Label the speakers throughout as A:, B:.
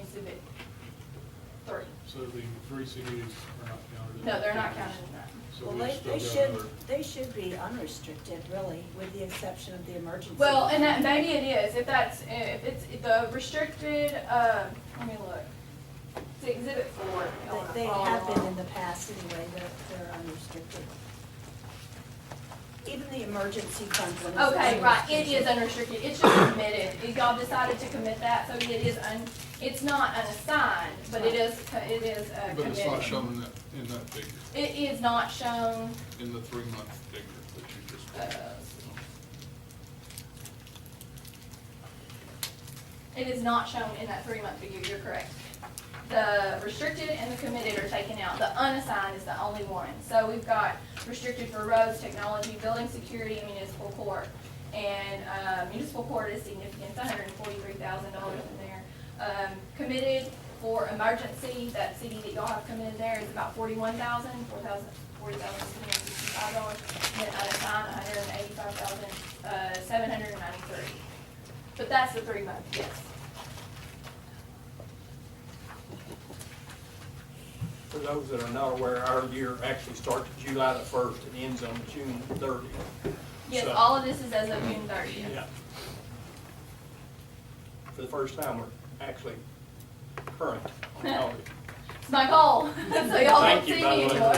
A: exhibit three.
B: So the three CDs are not counted?
A: No, they're not counted in that.
B: So
C: Well,
B: we still
C: they, they
B: got
C: should, uh,
B: another,
C: they should be unrestricted, really, with the exception of the emergency.
A: Well, and that, maybe it is, if that's, if it's, if the restricted, uh, let me look. It's exhibit four. Oh.
C: They, they have been in the past anyway, they're, they're unrestricted. Even the emergency fund one is.
A: Okay, right, it
C: unrestricted.
A: is unrestricted, it's just committed, y'all decided to commit that, so it is un, it's not unassigned, but it is, co- it is uh,
B: but it's not
A: committed.
B: shown in that, in that figure,
A: It is not shown,
B: in the three-month figure that you just.
A: uh, it is not shown in that three-month figure, you're correct. The restricted and the committed are taken out, the unassigned is the only one. So we've got restricted for roads, technology, building security, and municipal court. And uh, municipal court is significant, it's hundred and forty-three thousand dollars in there. Um, Committed for emergency, that CD that y'all have committed there is about forty-one thousand, four thousand, forty thousand seven hundred and sixty-five dollars. And then unassigned, hundred and eighty-five thousand, uh, seven hundred and ninety-three. But that's the three month, yes.
D: For those that are not aware, our year actually starts July the first and ends on June thirtieth.
A: Yes,
D: So-
A: all of this is as of June thirtieth.
D: Yeah. For the first time, we're actually current on audit.
A: It's my goal, so y'all don't
D: Thank you,
A: see
D: by
A: me
D: the way.
A: anymore.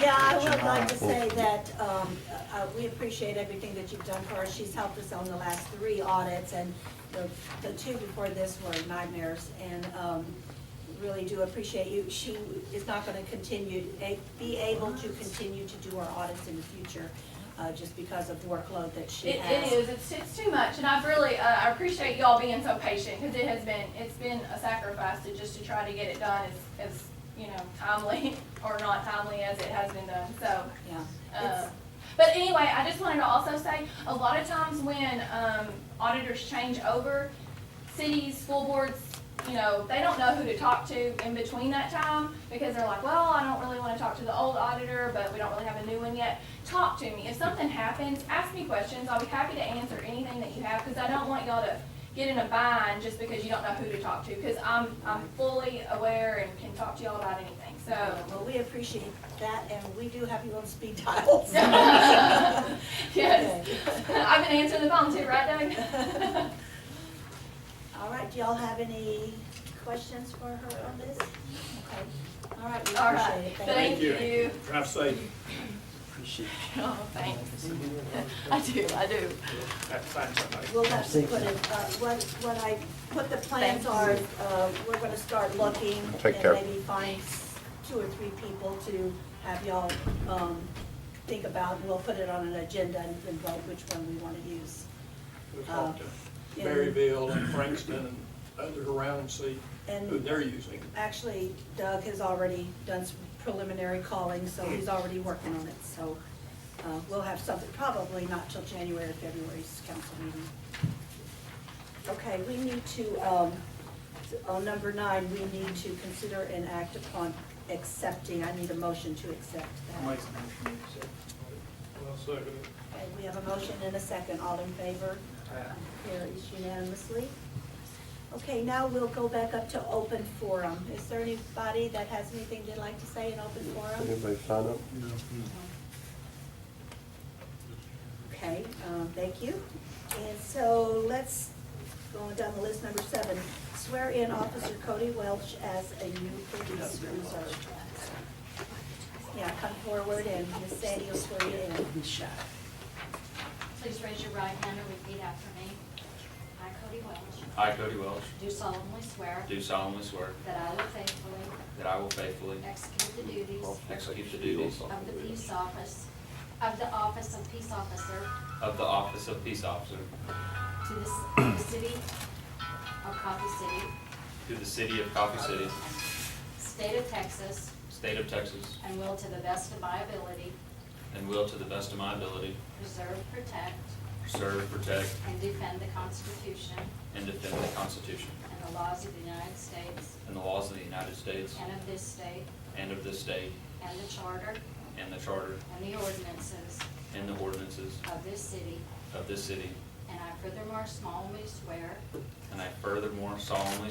C: Yeah, I would like to say that um, uh, we appreciate everything that you've done for us. She's helped us on the last three audits, and the the two before this were nightmares, and um, really do appreciate you. She is not going to continue, a- be able to continue to do our audits in the future, uh, just because of the workload that she
A: It,
C: has.
A: it is, it's, it's too much, and I've really, uh, I appreciate y'all being so patient, because it has been, it's been a sacrifice to just to try to get it done as, as, you know, timely, or not timely as it has been done, so.
C: Yeah.
A: Uh,
C: It's-
A: But anyway, I just wanted to also say, a lot of times when um, auditors change over, cities, school boards, you know, they don't know who to talk to in between that time because they're like, well, I don't really want to talk to the old auditor, but we don't really have a new one yet. Talk to me. If something happens, ask me questions. I'll be happy to answer anything that you have because I don't want y'all to get in a bind just because you don't know who to talk to because I'm, I'm fully aware and can talk to y'all about anything, so.
C: Well, we appreciate that, and we do have you on speed dial.
A: Yes. I've been answering the phone too, right, Doug?
C: All right, do y'all have any questions for her on this? Okay, all right, we
A: All
C: appreciate
A: right.
C: it, thank
A: Thank
C: you.
A: you.
D: Drive safe.
A: Oh, thanks. I do, I do.
D: Have to find somebody.
C: We'll have to put it, uh, what, what I, what the plans are, uh, we're gonna start looking
E: Take care.
C: and maybe find s- two or three people to have y'all, um, think about, and we'll put it on an agenda and then vote which one we wanna use. Uh,
D: We talked to
C: Oh, Yeah.
D: Maryville and Frankston and others around and see who
C: And
D: they're using.
C: actually Doug has already done some preliminary calling, so he's already working on it, so, uh, we'll have something, probably not till January, or February's council meeting. Okay, we need to, um, on number nine, we need to consider and act upon accepting, I need a motion to accept that.
B: Well, second.
C: Okay, we have a motion and a second, all in favor? Carries unanimously. Okay, now we'll go back up to open forum. Is there anybody that has anything they'd like to say in open forum?
E: Anybody sign up?
B: No.
C: Okay, um, thank you. And so let's go on down the list, number seven. Swear in Officer Cody Welch as a new police reserve. Yeah, come forward and Miss Sandy will swear you in.
F: Please raise your right hand and repeat after me. I, Cody Welch,
G: I, Cody Welch,
F: do solemnly swear
G: do solemnly swear
F: that I will faithfully
G: that I will faithfully
F: execute the duties
G: execute the duties
F: of the peace office, of the office of peace officer
G: of the office of peace officer
F: to the ci- the city of Coffee City,
G: to the city of Coffee City,
F: state of Texas,
G: state of Texas,
F: and will to the best of my ability
G: and will to the best of my ability
F: preserve, protect,
G: serve, protect,
F: and defend the Constitution
G: and defend the Constitution
F: and the laws of the United States
G: and the laws of the United States
F: and of this state,
G: and of this state,
F: and the charter
G: and the charter
F: and the ordinances
G: and the ordinances
F: of this city,
G: of this city.
F: and I furthermore solemnly swear
G: And I furthermore solemnly